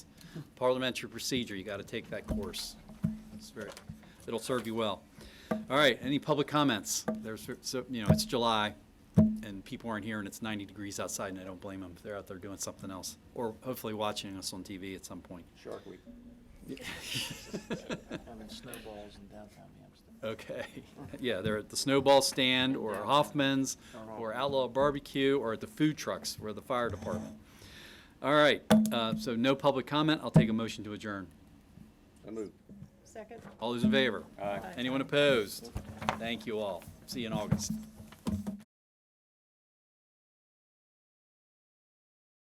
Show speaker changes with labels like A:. A: parliamentary procedure, you got to take that course. It's very, it'll serve you well. All right, any public comments? There's, so, you know, it's July, and people aren't here, and it's 90 degrees outside, and I don't blame them. They're out there doing something else, or hopefully watching us on TV at some point.
B: Shark Week. Having snowballs in downtown Hampstead.
A: Okay, yeah, they're at the Snowball Stand, or Hoffman's, or Outlaw Barbecue, or at the food trucks, or the fire department. All right, uh, so no public comment, I'll take a motion to adjourn.
B: I move.
C: Second.
A: All those in favor? Anyone opposed? Thank you all. See you in August.